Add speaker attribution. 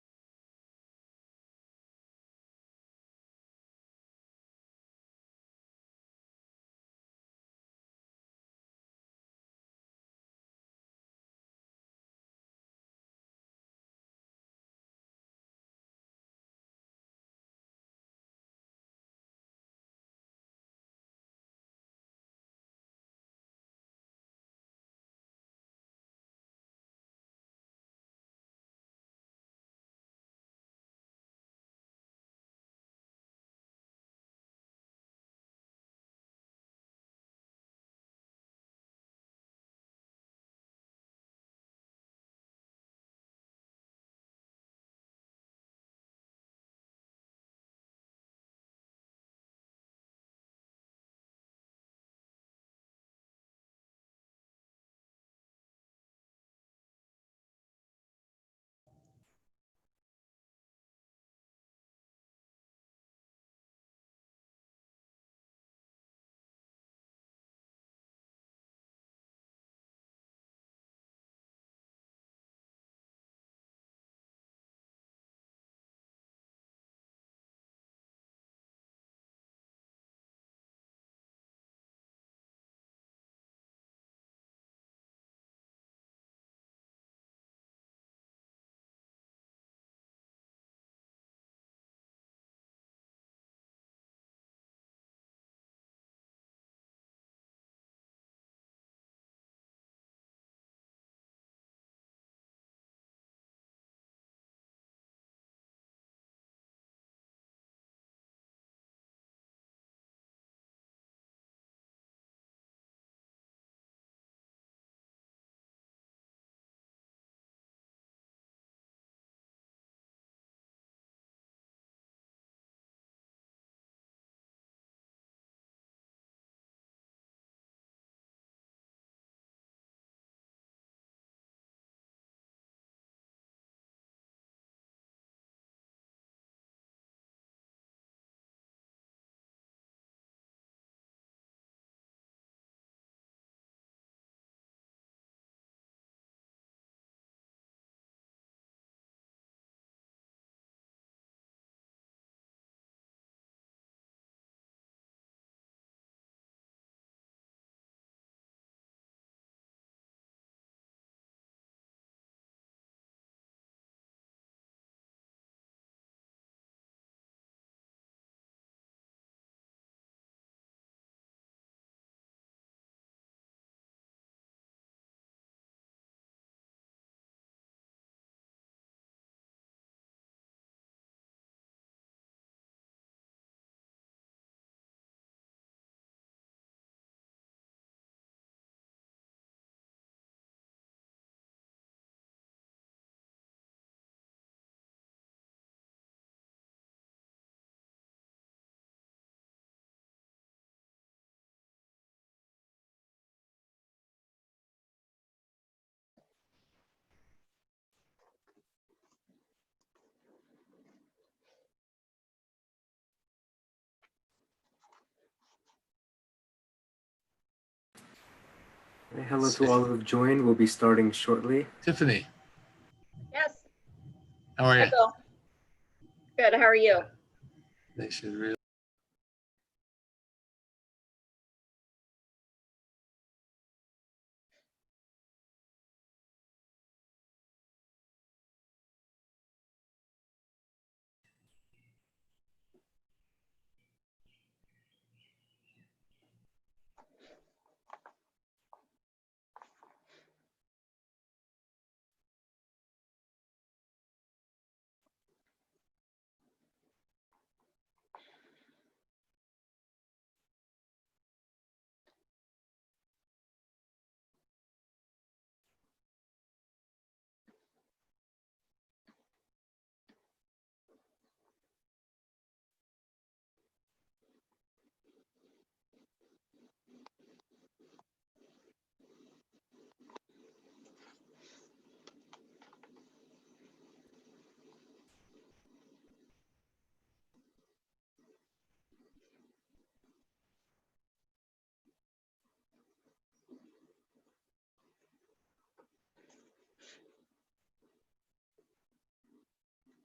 Speaker 1: Hello to all who've joined. We'll be starting shortly.
Speaker 2: Tiffany,
Speaker 3: Yes,
Speaker 2: how are you?
Speaker 3: Michael. Good, how are you?
Speaker 2: They should really.